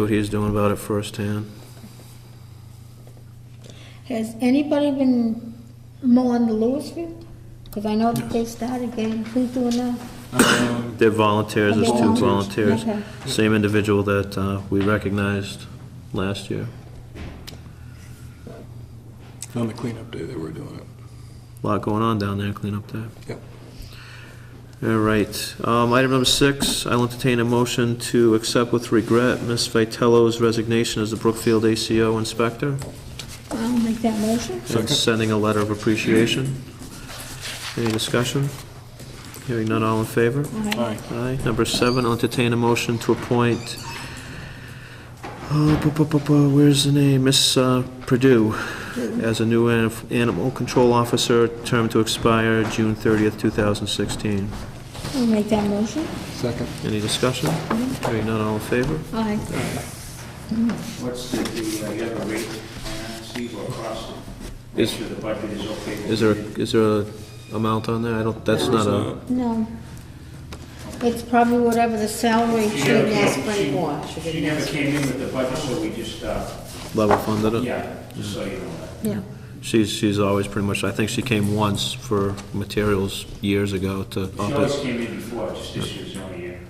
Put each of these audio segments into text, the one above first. What he's doing about it firsthand. Has anybody been mowing the Lewis field? Because I know that they started getting, who's doing that? Um, They're volunteers, there's two volunteers. Volunteers. Okay. Same individual that uh, we recognized last year. On the cleanup day, they were doing it. Lot going on down there, cleanup day. Yep. All right, um, item number six, I'll entertain a motion to accept with regret Ms. Vitello's resignation as the Brookfield ACO inspector I'll make that motion. and sending a letter of appreciation. Any discussion? Hearing none, all in favor? All right. Aye. Aye. Number seven, I'll entertain a motion to appoint, oh, bu- bu- bu- bu- where's the name, Miss uh, Purdue, as a new an- animal control officer, term to expire June 30th, 2016. I'll make that motion. Second. Any discussion? Hearing none, all in favor? All right. What's the, the, uh, you have a rate, uh, Steve, or across? Make Is- sure the budget is okay. with Is there, it. is there a amount on there? I don't, that's not a, No. It's probably whatever the salary She should never be. didn't ask came- for any more. She didn't never ask for came in with the budget, so we just, uh, level funded it? yeah, just so you know that. Yeah. She's, she's always pretty much, I think she came once for materials years ago to up She it. always came in before, just this year's the only year.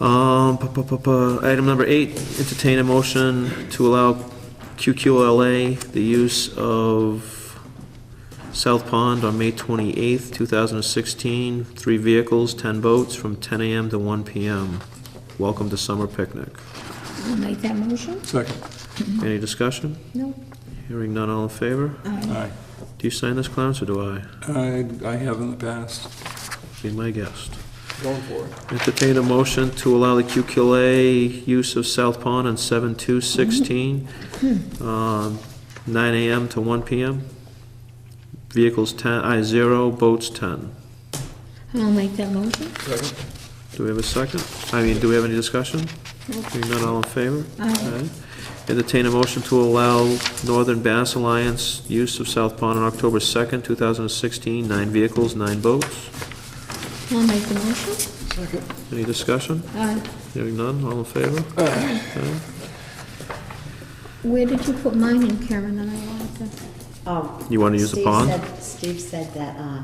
Um, pa- pa- pa- pa. item number eight, entertain a motion to allow QQLA the use of South Pond on May twenty-eighth, two thousand and sixteen, three vehicles, ten boats, from ten AM to one PM. Welcome to summer picnic. I'll make that motion. Second. Any discussion? No. Hearing none, all in favor? Aye. Do you sign this, Clarence, or do I? I, I have in the past. Be my guest. Going for it. Entertain a motion to allow the QQLA use of South Pond on seven two sixteen, um, nine AM to one PM. Vehicles ten, I zero, boats ten. I'll make that motion. Second. Do we have a second? I mean, do we have any discussion? Hearing none, all in favor? Aye. Entertain a motion to allow Northern Bass Alliance use of South Pond on October second, two thousand and sixteen, nine vehicles, nine boats. I'll make the motion. Second. Any discussion? All right. Hearing none, all in favor? Aye. Where did you put mine in, Karen, and I wanted to? Um, You wanna use the Steve pond? said- Steve said that uh,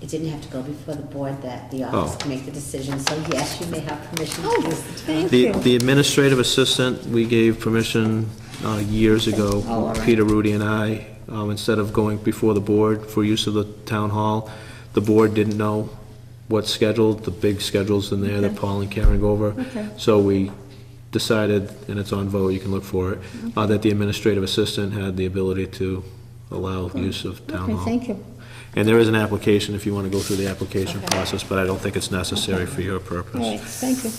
it didn't have to go before the board, that the Oh. office can make the decision, so yes, you may have permission Oh, to use the thank pond. The the administrative assistant, we gave permission uh, years Oh, all ago, right. Peter, Rudy, and I, um, instead of going before the board for use of the town hall, the board didn't know what's scheduled, the big schedules in there that Okay. Paul and Karen go over. Okay. So we decided, and it's on vote, you can look for it, Mm-hmm. uh, that the administrative assistant had the ability to allow use of town Okay, hall. thank you. And there is an application, if you want to go through the application Okay. process, but I don't think it's necessary for your purpose. All right, thank you.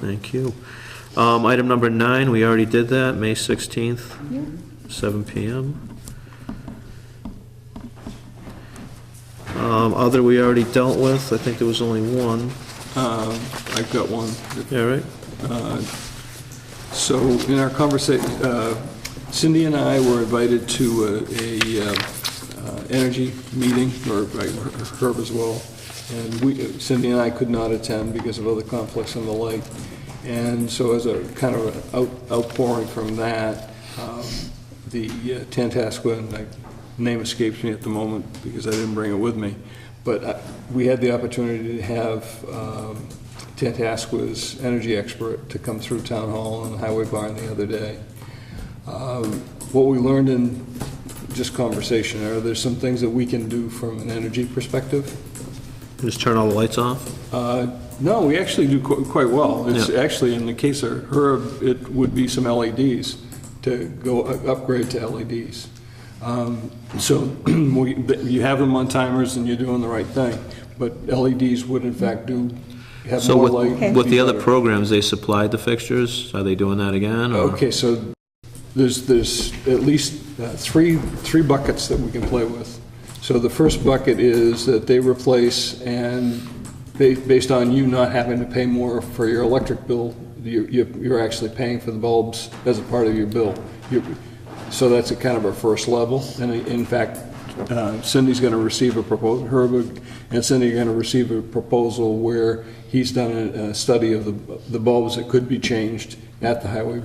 Thank you. Um, Item number nine, we already did that, May 16th, Yeah. seven PM. Um, Other, we already dealt with, I think there was only one, Um, I've got one. yeah, right? So in our uh, conversation, Cindy and I were invited to a, a, uh, uh, energy meeting, or uh, Herb as well, and we, Cindy and I could not attend because of other conflicts and the like. And so as a kind of a out- outpouring from that, um, the uh, Tantasqua, and the name escapes me at the moment because I didn't bring it with me, but uh, we had the opportunity to have um, Tantasqua's energy expert to come through Town Hall and Highway Barn the other day. Um, What we learned in just conversation are there's some things that we can do from an energy perspective. Just turn all the lights off? Uh, No, we actually do qu- quite well. It's Yeah. actually, in the case of Herb, it would be some LEDs to go u- upgrade to LEDs. Um, So we- th- you have them on timers and you're doing the right thing, but LEDs would in fact do have So more with, light. and with be the other better. programs, they supplied the fixtures, are they doing that again? or- Okay, so there's, there's at least uh, three, three buckets that we can play with. So the first bucket is that they replace, and ba- based on you not having to pay more for your electric bill, you- you- you're actually paying for the bulbs as a part of your bill. You- So that's a kind of our first level, and in fact, uh, Cindy's going to receive a proposal, Herb and Cindy are going to receive a proposal where he's done a a study of the the bulbs that could be changed at the highway